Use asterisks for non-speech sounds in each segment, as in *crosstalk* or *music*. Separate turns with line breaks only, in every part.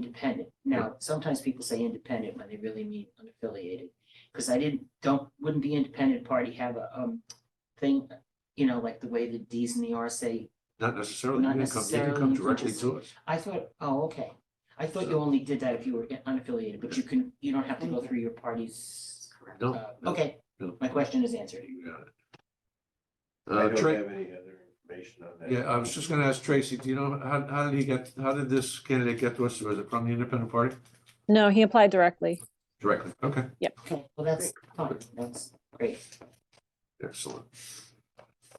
independent. Now, sometimes people say independent when they really mean unaffiliated. Because I didn't, don't, wouldn't the independent party have a, um, thing, you know, like the way the Ds and the Rs say,
Not necessarily.
Not
You can come- you can
necessarily,
Come
you can
directly
just-
to us.
I thought, oh, okay. I thought you only did that if you were unaffiliated, but you can, you don't have to go through your party's.
No,
uh,
no,
Okay,
no.
my question is answered.
You got it.
I
Uh,
don't
Tra-
have any other information on that.
yeah, I was just gonna ask Tracy, do you know, how, how did he get, how did this candidate get to us? Was it from the independent party?
No, he applied directly.
Directly, okay,
Okay, well, that's fine. That's great.
excellent.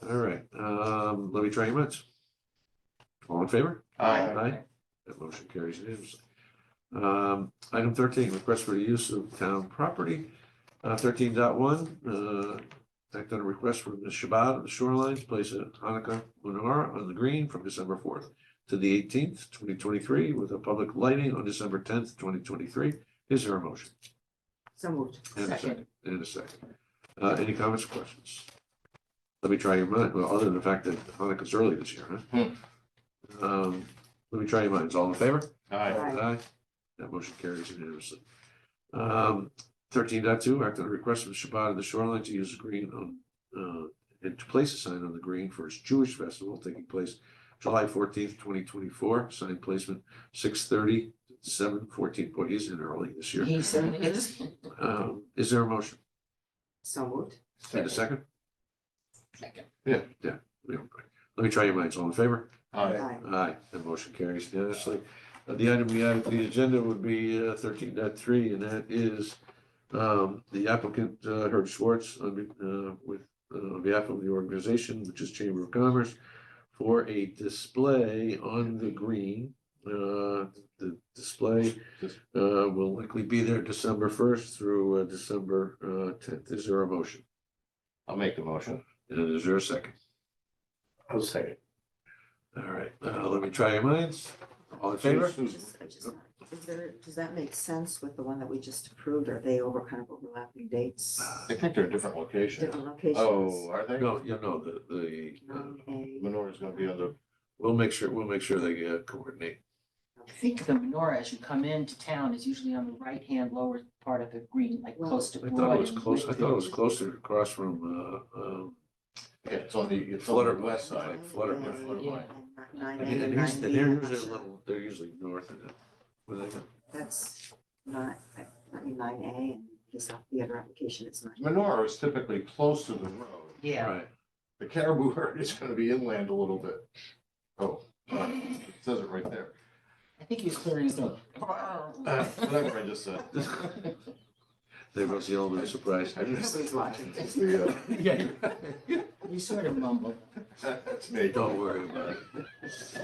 All right, um, let me try your minds. All in favor?
Aye.
Aye. That motion carries unanimously. Um, item thirteen, request for the use of town property, uh, thirteen dot one, uh, act on a request from the Shabbat of the Shoreline to place a Hanukkah menorah on the green from December fourth to the eighteenth, twenty twenty-three, with a public lighting on December tenth, twenty twenty-three. Is there a motion?
So moved.
And a
Second.
second, and a second. Uh, any comments, or questions? Let me try your mind, well, other than the fact that Hanukkah's early this year, huh? Um, let me try your minds. All in favor?
Aye.
Aye. That motion carries unanimously. Um, thirteen dot two, act on a request from Shabbat of the Shoreline to use the green on, uh, and to place a sign on the green for its Jewish festival taking place July fourteenth, twenty twenty-four, sign placement six thirty, seven fourteen, boy, he's in early this year.
He certainly is.
Um, is there a motion?
*laughs* So moved.
And a second?
Second.
Yeah, yeah. we don't- Let me try your minds. All in favor?
Aye.
Aye.
Aye, the motion carries unanimously. Uh, The item we have on the agenda would be uh, thirteen dot three, and that is um, the applicant uh, Herb Schwartz on be- uh, with, uh, on behalf of the organization, which is Chamber of Commerce, for a display on the green. Uh, The display uh, will likely be there December first through uh, December uh, tenth. Is there a motion?
I'll make the motion.
And is there a second?
I'll second.
All right, uh, let me try your minds. All in favor?
Just- I just- Is there, does that make sense with the one that we just approved? Are they over kind of overlapping dates?
I think they're different locations.
Different locations?
Oh, are they?
No, you know, the, the, uh,
Okay,
Menora's gonna be on the,
we'll make sure, we'll make sure they uh, coordinate.
I think the menorah, as you come into town, is usually on the right-hand lower part of the green, like
Well-
close to.
I thought it
Broad
was
and
close, I
with
thought it
the-
was closer across from, uh, um,
it's on the, it's on the
Flutter.
west side.
Like flutter,
Yeah,
flutter
flutter
yeah.
line.
and Nine
I
A
mean,
and
and here's-
nine
and
B.
they're
I'm not
usually a
sure.
little, they're usually north of it. Were they-
That's not, I mean, nine A and this, the other application is nine.
Menora is typically close to the road.
Yeah,
Right, *laughs*
The caribou *laughs* herd is gonna be inland a little bit. Oh, uh, it says it right there.
I think he was clearing his throat.
Uh, Whatever I just
*laughs*
said.
they must yell with surprise.
I missed it.
Nobody's watching.
It's the, uh,
Yeah.
You sort of mumbled.
*laughs* That's uh, me.
*laughs* Don't worry about it.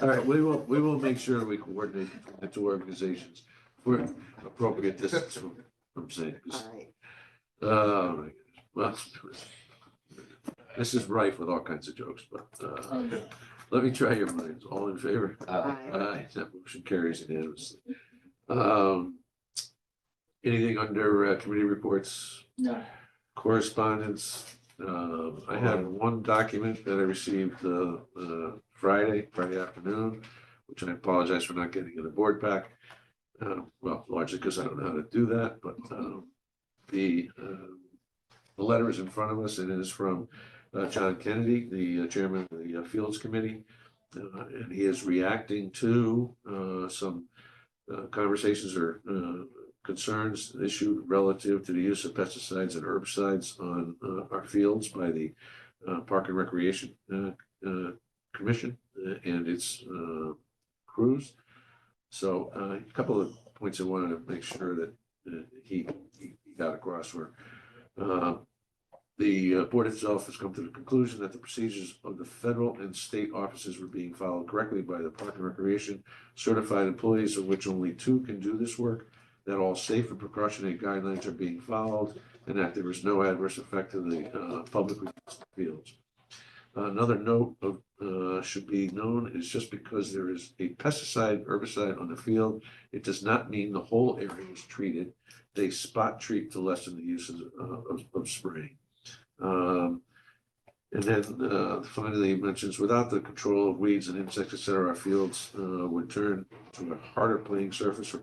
All right, we will, we will make sure we coordinate the two organizations for appropriate distance from, from St.
All right,
Oh, my goodness. Well, *laughs* this is rife with all kinds of jokes, but, uh,
Um,
let me try your minds. All in favor?
Uh,
Aye.
Aye, that motion carries unanimously. Um, anything under uh, committee reports,
No,
correspondence? Um, I have one document that I received, uh, uh, Friday, Friday afternoon, which I apologize for not getting in the board pack. Uh, well, largely because I don't know how to do that, but, um, the, uh, the letter is in front of us. It is from, uh, John Kennedy, the uh, chairman of the uh, Fields Committee. Uh, and he is reacting to uh, some uh, conversations or uh, concerns issued relative to the use of pesticides and herbicides on uh, our fields by the uh, Park and Recreation uh, uh, Commission uh, and its uh, crews. So uh, a couple of points I wanted to make sure that uh, he he got across were uh, the uh, board itself has come to the conclusion that the procedures of the federal and state offices were being followed correctly by the Park and Recreation certified employees, of which only two can do this work, that all safe and precautionary guidelines are being followed, and that there is no adverse effect to the uh, public fields. Another note of, uh, should be known is just because there is a pesticide, herbicide on the field, it does not mean the whole area is treated. They uh, spot treat to lessen the uses of, of spraying. Um, And then uh, finally, he mentions, without the control of weeds and insects, et cetera, our fields uh, would turn to a harder playing surface for